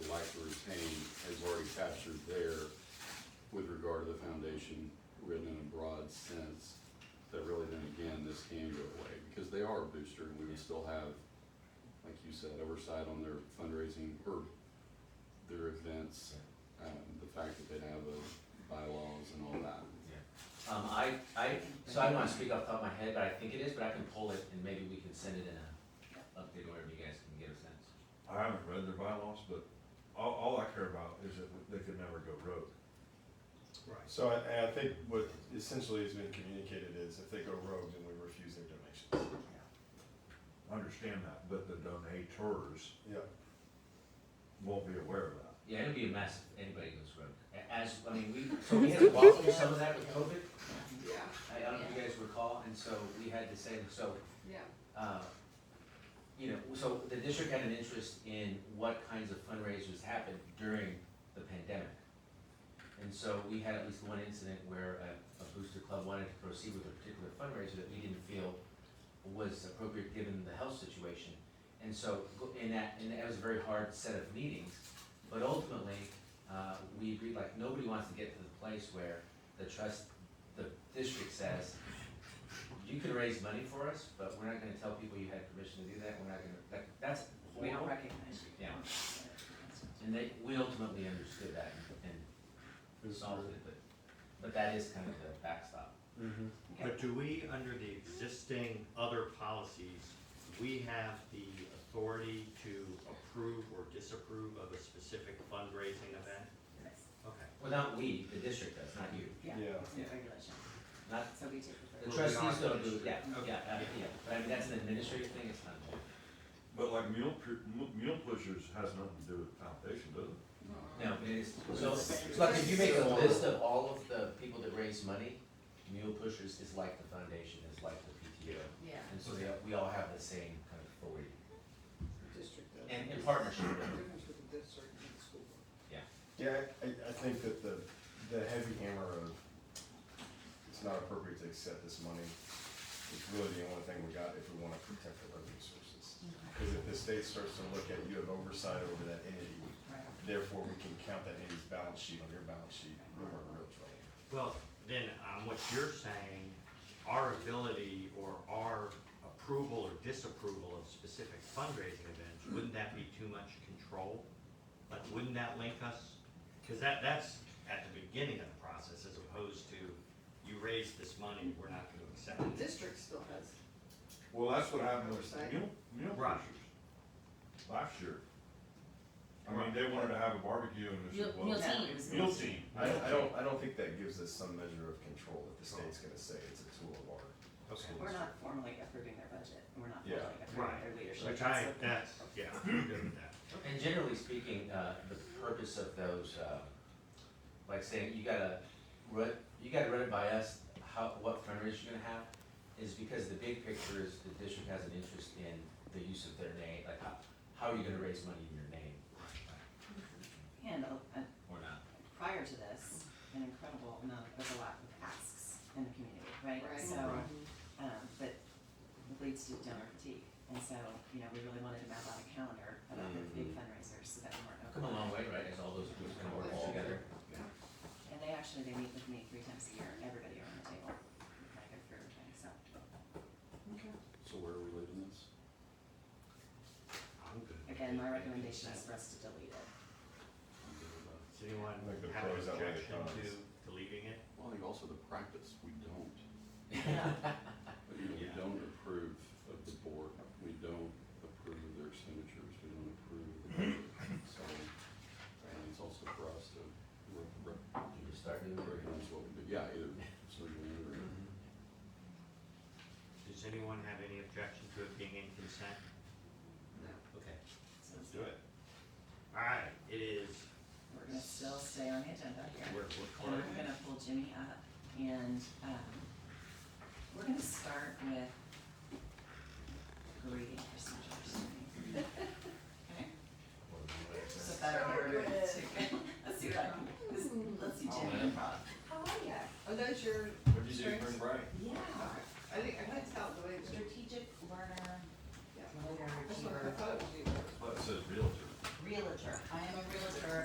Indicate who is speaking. Speaker 1: regulation written in a broad sense, that really then again, this can go away, because they are a booster, and we would still have, like you said, oversight on their fundraising or their events, um, the fact that they have a bylaws and all that.
Speaker 2: Um, I, I, so I don't wanna speak off the top of my head, but I think it is, but I can pull it and maybe we can send it in a update, whatever you guys can get a sense.
Speaker 3: I haven't read their bylaws, but all, all I care about is that they could never go rogue.
Speaker 4: So I, and I think what essentially has been communicated is if they go rogue, then we refuse their donations.
Speaker 3: I understand that, but the donators
Speaker 4: Yeah,
Speaker 3: won't be aware of that.
Speaker 2: Yeah, it'll be a mess if anybody goes rogue. A- As, I mean, we, so we had to walk through some of that with COVID. I, I don't know if you guys recall, and so we had to say, so,
Speaker 5: Yeah,
Speaker 2: uh, you know, so the district had an interest in what kinds of fundraisers happened during the pandemic. And so we had at least one incident where a, a booster club wanted to proceed with a particular fundraiser that we didn't feel was appropriate given the health situation. And so, go- and that, and that was a very hard set of meetings, but ultimately, uh, we agreed, like, nobody wants to get to the place where the trust, the district says, you can raise money for us, but we're not gonna tell people you had permission to do that, we're not gonna, that, that's
Speaker 6: We don't
Speaker 2: horrible.
Speaker 6: recognize you.
Speaker 2: Yeah. And they, we ultimately understood that and and resolved it, but, but that is kind of the backstop.
Speaker 6: Mm-hmm.
Speaker 7: But do we, under the existing other policies, we have the authority to approve or disapprove of a specific fundraising event? Okay.
Speaker 2: Well, not we, the district does, not you,
Speaker 6: Yeah,
Speaker 4: Yeah.
Speaker 6: it's in regulation,
Speaker 2: not,
Speaker 6: so we take
Speaker 2: the
Speaker 6: it.
Speaker 7: Well, we
Speaker 2: trustees
Speaker 7: are the
Speaker 2: don't do, yeah,
Speaker 7: district.
Speaker 2: yeah, uh,
Speaker 7: Okay.
Speaker 2: yeah, but I mean, that's an administrative thing, it's not.
Speaker 3: But like mule, pu- mu- mule pushers has nothing to do with the foundation, does it?
Speaker 2: No, it is, so,
Speaker 6: It's-
Speaker 2: like, if you make a list of all of the people that raise money, Mule Pushers is like the foundation, is like the PTO.
Speaker 5: yeah.
Speaker 2: And so they, we all have the same kind of authority,
Speaker 8: district does.
Speaker 2: and in partnership,
Speaker 8: The difference with the district and the school board.
Speaker 4: yeah, I, I think that the, the heavy hammer of it's not appropriate to accept this money is really the only thing we got if we wanna protect our revenue sources. Cause if the state starts to look at you have oversight over that entity,
Speaker 6: Right.
Speaker 4: therefore we can count that entity's balance sheet on your balance sheet, we're in real trouble.
Speaker 7: Well, then, on what you're saying, our ability or our approval or disapproval of specific fundraising events, wouldn't that be too much control? Like, wouldn't that link us? Because that, that's at the beginning of the process, as opposed to, you raised this money, we're not gonna accept it.
Speaker 8: The district still has,
Speaker 3: Well, that's what happened with
Speaker 8: Oversight.
Speaker 3: mule, mule
Speaker 7: Right.
Speaker 3: pushers last year. I mean, they wanted to have a barbecue and they
Speaker 5: Mule-
Speaker 3: said, well.
Speaker 5: mule teams.
Speaker 3: Mule team.
Speaker 4: I don't, I don't, I don't think that gives us some measure of control that the state's gonna say it's a tool of our
Speaker 7: Okay.
Speaker 4: school district.
Speaker 6: We're not formally approving their budget, we're not
Speaker 4: Yeah.
Speaker 6: formally approving their
Speaker 7: Right.
Speaker 6: leadership.
Speaker 7: Which I,
Speaker 6: That's the-
Speaker 7: that's, yeah, I'm good with that.
Speaker 2: And generally speaking, uh, the purpose of those, uh, like saying, you gotta run, you gotta run it by us, how, what fundraiser you're gonna have, is because the big picture is the district has an interest in the use of their name, like how, how are you gonna raise money in your name?
Speaker 6: And, uh, uh,
Speaker 2: Or not.
Speaker 6: prior to this, an incredible amount of overlap of asks in the community, right?
Speaker 8: Right.
Speaker 6: So,
Speaker 8: Right.
Speaker 6: um, but it leads to donor fatigue, and so, you know, we really wanted to map out a calendar of other big fundraisers so that we weren't
Speaker 2: Come a
Speaker 6: overlapping.
Speaker 2: long way, right, as all those groups kind of work all together.
Speaker 6: And they actually, they meet with me three times a year, everybody around the table, I go through everything, so.
Speaker 1: So where are we leaving this?
Speaker 7: I'm good. with
Speaker 6: Again,
Speaker 7: it.
Speaker 6: my recommendation is for us to delete it.
Speaker 7: Does anyone
Speaker 4: I think the
Speaker 7: have an
Speaker 4: pros outweigh the cons.
Speaker 7: objection to deleting it?
Speaker 1: Well, I think also the practice, we don't, you know, we
Speaker 7: Yeah.
Speaker 1: don't approve of the board, we don't approve of their signatures, we don't approve of the budget. So, and it's also for us to re- re-
Speaker 2: You start doing it.
Speaker 1: recognize what we do, yeah, either certainly or.
Speaker 2: Mm-hmm.
Speaker 7: Does anyone have any objection to it being in consent? Okay.
Speaker 6: Let's
Speaker 7: it. All right, it is,
Speaker 6: We're gonna still stay on the agenda here.
Speaker 7: we're, we're
Speaker 6: And
Speaker 7: clear.
Speaker 6: I'm gonna pull Jimmy up and, um, we're gonna start with greeting procedures. Okay? Just a better word to, let's do that. Let's, let's do Jimmy improv.
Speaker 5: How are ya?
Speaker 8: Are Oh, those your
Speaker 3: What'd you do,
Speaker 8: strengths?
Speaker 3: Brent Bright?
Speaker 6: Yeah.
Speaker 8: I think, I couldn't tell the way it was.
Speaker 6: Strategic learner.
Speaker 8: Yeah.
Speaker 6: Learner,
Speaker 8: That's what I thought it was either.
Speaker 3: That's what it says realtor.
Speaker 6: Realtor. I am a